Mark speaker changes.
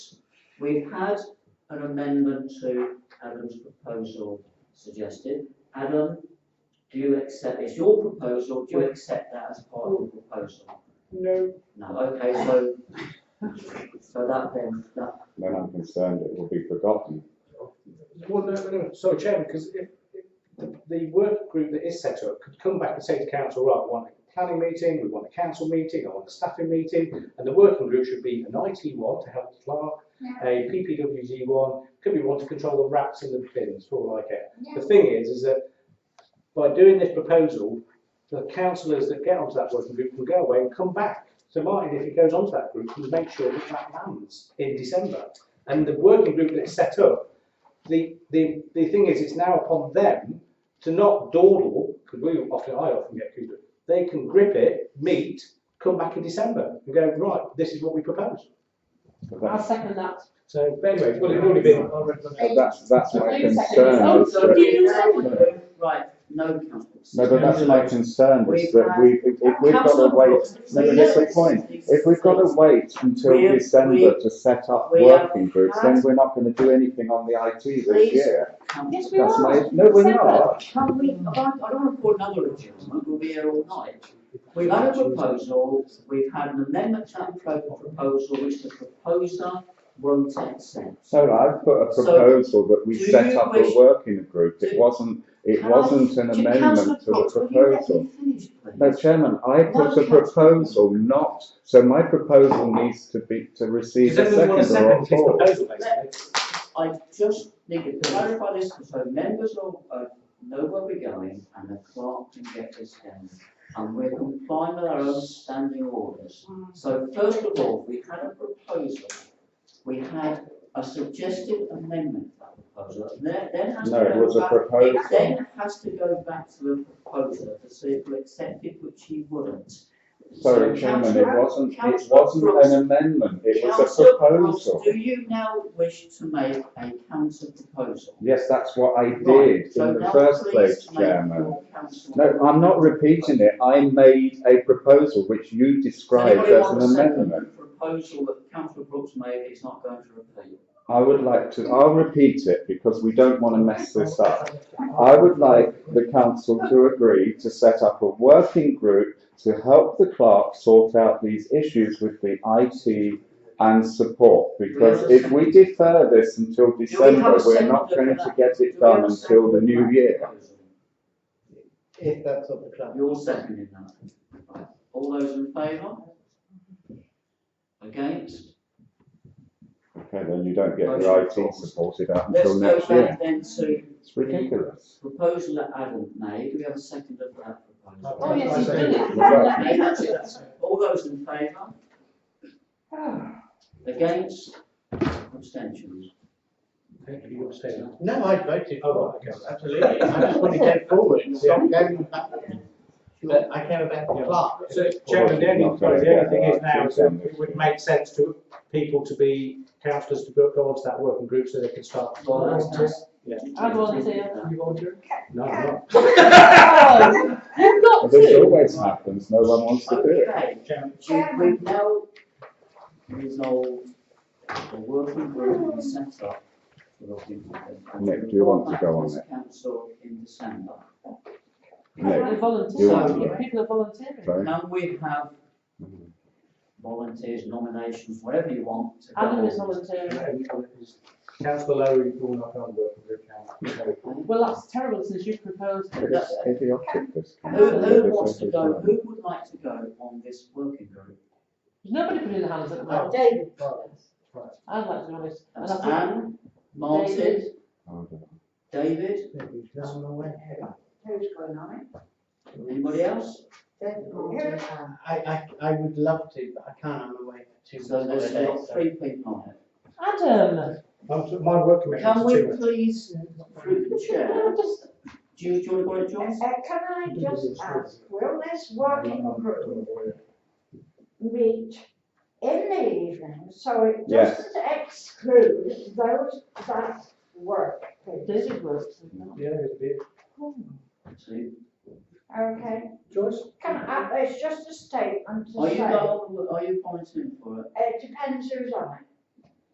Speaker 1: We've had an amendment to Adam's proposal suggested. Adam, do you accept, it's your proposal, do you accept that as part of the proposal?
Speaker 2: No,
Speaker 1: No, okay, so, so that then, that,
Speaker 3: Then I'm concerned it will be forgotten.
Speaker 2: well, no, no, sorry, Chairman, because if, if the, the work group that is set up could come back and say to council, right, we want a planning meeting, we want a council meeting, I want a staffing meeting, and the working group should be an IT one to help the clerk, a PPWG one, could be one to control the rats in the bins, for all I care. The thing is, is that by doing this proposal, the councillors that get onto that working group can go away and come back. So Martin, if he goes onto that group, can make sure that that lands in December. And the working group that's set up, the, the, the thing is, it's now upon them to not dawdle, because we often, I often get accused of, they can grip it, meet, come back in December and go, right, this is what we propose.
Speaker 3: But
Speaker 4: I'll
Speaker 3: That's,
Speaker 4: second that.
Speaker 2: So but anyway, well, it's already been, I'll recommend it.
Speaker 3: that's, that's my
Speaker 4: Wait a second,
Speaker 3: concern. is
Speaker 4: it's
Speaker 1: so,
Speaker 4: Do
Speaker 3: that-
Speaker 4: you
Speaker 3: know-
Speaker 1: right, no councillors.
Speaker 3: No, but that's my concern is
Speaker 1: We've
Speaker 3: that
Speaker 1: had-
Speaker 3: we, if if we've got to wait, no, but that's the point. If we've got to wait
Speaker 1: We-
Speaker 3: until
Speaker 1: we-
Speaker 3: December to set up
Speaker 1: we have
Speaker 3: working groups, then
Speaker 1: had-
Speaker 3: we're not going to do anything on the IT this
Speaker 1: Please.
Speaker 3: year.
Speaker 4: Yes, we
Speaker 3: That's
Speaker 4: are.
Speaker 3: my, no, we're
Speaker 4: Separate.
Speaker 3: not.
Speaker 1: Can we, I don't I don't want to call another adjournment, we'll be here all night. We've had a proposal, we've had an amendment to that pro- proposal which the proposer won't accept.
Speaker 3: So I've put a
Speaker 1: So,
Speaker 3: proposal that we
Speaker 1: do
Speaker 3: set
Speaker 1: you
Speaker 3: up a
Speaker 1: wish-
Speaker 3: working group. It
Speaker 1: Do-
Speaker 3: wasn't, it
Speaker 1: Can I-
Speaker 3: wasn't an
Speaker 1: Councillor
Speaker 3: amendment to the
Speaker 1: Fox, will you let
Speaker 3: proposal.
Speaker 1: me finish, please?
Speaker 3: No, Chairman, I put a
Speaker 1: Councillor-
Speaker 3: proposal not, so my proposal needs to be, to receive
Speaker 2: Does
Speaker 3: a
Speaker 2: anyone want to
Speaker 3: second or
Speaker 2: second
Speaker 3: a
Speaker 2: his
Speaker 3: fourth.
Speaker 2: proposal, basically?
Speaker 1: I just need to clarify this, so members of, uh, know where we're going, and the clerk can get this down. And we're complying with our own standing orders. So first of all, we had a proposal, we had a suggested amendment to that proposal, and then, then has to
Speaker 3: No, it was
Speaker 1: go
Speaker 3: a
Speaker 1: back.
Speaker 3: proposal.
Speaker 1: Then has to go back to the proposer to see if we accept it, which he wouldn't.
Speaker 3: Sorry,
Speaker 1: So
Speaker 3: Chairman, it
Speaker 1: Councillor-
Speaker 3: wasn't, it
Speaker 1: Councillor
Speaker 3: wasn't
Speaker 1: Brooks-
Speaker 3: an amendment, it was a
Speaker 1: Councillor Brooks,
Speaker 3: proposal.
Speaker 1: Do you now wish to make a counter proposal?
Speaker 3: Yes, that's what I
Speaker 1: Right,
Speaker 3: did
Speaker 1: so
Speaker 3: in the
Speaker 1: now
Speaker 3: first
Speaker 1: please
Speaker 3: place,
Speaker 1: make
Speaker 3: Chairman.
Speaker 1: your council-
Speaker 3: No, I'm not repeating it, I made a proposal which you described
Speaker 1: Anybody
Speaker 3: as
Speaker 1: want
Speaker 3: an
Speaker 1: to second the
Speaker 3: amendment.
Speaker 1: Proposal that councillor Brooks made, he's not going to repeat.
Speaker 3: I would like to, I'll repeat it because we don't want to mess this up. I would like the council to agree to set up a working group to help the clerk sort out these issues with the IT and support. Because if we defer this until
Speaker 1: Do we have a
Speaker 3: December, we're not
Speaker 1: seconder
Speaker 3: going
Speaker 1: for
Speaker 3: to
Speaker 1: that?
Speaker 3: get
Speaker 1: Do
Speaker 3: it
Speaker 1: we have
Speaker 3: done
Speaker 1: a
Speaker 3: until the
Speaker 1: seconder for
Speaker 3: new
Speaker 1: that
Speaker 3: year.
Speaker 1: proposal?
Speaker 5: if that's what the plan.
Speaker 1: You're seconding that. Right. All those in favour? Against?
Speaker 3: Okay, then you don't get your IT supported out
Speaker 1: Oh, Let's
Speaker 3: until
Speaker 1: go
Speaker 3: next year.
Speaker 1: back then to
Speaker 3: It's ridiculous.
Speaker 1: proposal that Adam made, do we have a seconder for that proposal?
Speaker 4: Oh, yes,
Speaker 5: I
Speaker 4: he's
Speaker 5: second
Speaker 4: done
Speaker 5: it.
Speaker 4: it.
Speaker 1: Okay, that's it, that's it. All those in favour? Against? Abstentions?
Speaker 2: Thank you, you're saying.
Speaker 5: No, I voted
Speaker 2: Oh,
Speaker 5: for
Speaker 2: right,
Speaker 5: it,
Speaker 2: okay.
Speaker 5: absolutely. I just want to get forward and stop going back. But I care about the clerk.
Speaker 2: So, Chairman, the only, sorry, the only thing is now, is that it would make sense to people to be, councillors to go go onto that working group so they can start.
Speaker 1: Well, that's nice.
Speaker 2: Yeah.
Speaker 4: I volunteer.
Speaker 2: You volunteer? No, I'm not.
Speaker 4: Oh, You've
Speaker 3: And
Speaker 4: got
Speaker 3: This
Speaker 4: to.
Speaker 3: always happens, no one wants to do it.
Speaker 1: Okay,
Speaker 2: Chairman,
Speaker 1: we, we now resolve the working group we set up. for the people that-
Speaker 3: Nick, do you want to go on
Speaker 1: This
Speaker 3: it?
Speaker 1: Council in December.
Speaker 3: No.
Speaker 4: They're
Speaker 3: You want
Speaker 4: volunteering.
Speaker 3: to-
Speaker 4: People are volunteering.
Speaker 3: Sorry.
Speaker 1: Can we have volunteers, nominations, whatever you want to go
Speaker 4: Adam is
Speaker 1: on?
Speaker 4: volunteering.
Speaker 2: Councillor Lowe, you're not on the working group now.
Speaker 4: Well, that's terrible since you proposed
Speaker 3: It
Speaker 4: it.
Speaker 3: is idiotic, this.
Speaker 1: Who,
Speaker 3: council.
Speaker 1: who wants to go, who would like to go on this working group?
Speaker 4: Nobody put in their hands at the moment.
Speaker 5: David.
Speaker 4: I'd like to be honest. And
Speaker 1: That's
Speaker 4: I think-
Speaker 1: Anne, Martin,
Speaker 4: David.
Speaker 1: David,
Speaker 6: Who's going on it?
Speaker 1: anybody else?
Speaker 5: I, I, I would love to, but I can't, I'm away for two
Speaker 1: So there's
Speaker 5: weeks
Speaker 1: got
Speaker 5: holiday.
Speaker 1: three people on it.
Speaker 4: Adam,
Speaker 2: I'm- My work commitment
Speaker 1: Can
Speaker 2: is two
Speaker 1: we
Speaker 2: minutes.
Speaker 1: please, through the chair,
Speaker 4: I'm just,
Speaker 1: do you, do you want to go to John?
Speaker 6: Uh, can I just ask, will this working group meet in the evening? So it
Speaker 3: Yes.
Speaker 6: doesn't exclude those that work, please?
Speaker 4: David works.
Speaker 2: Yeah, it'd be,
Speaker 1: Two.
Speaker 6: Okay?
Speaker 2: Joyce?
Speaker 6: Can I, it's just a statement to
Speaker 1: Are you
Speaker 6: say,
Speaker 1: going, are you volunteering for it?
Speaker 6: it depends who's on it.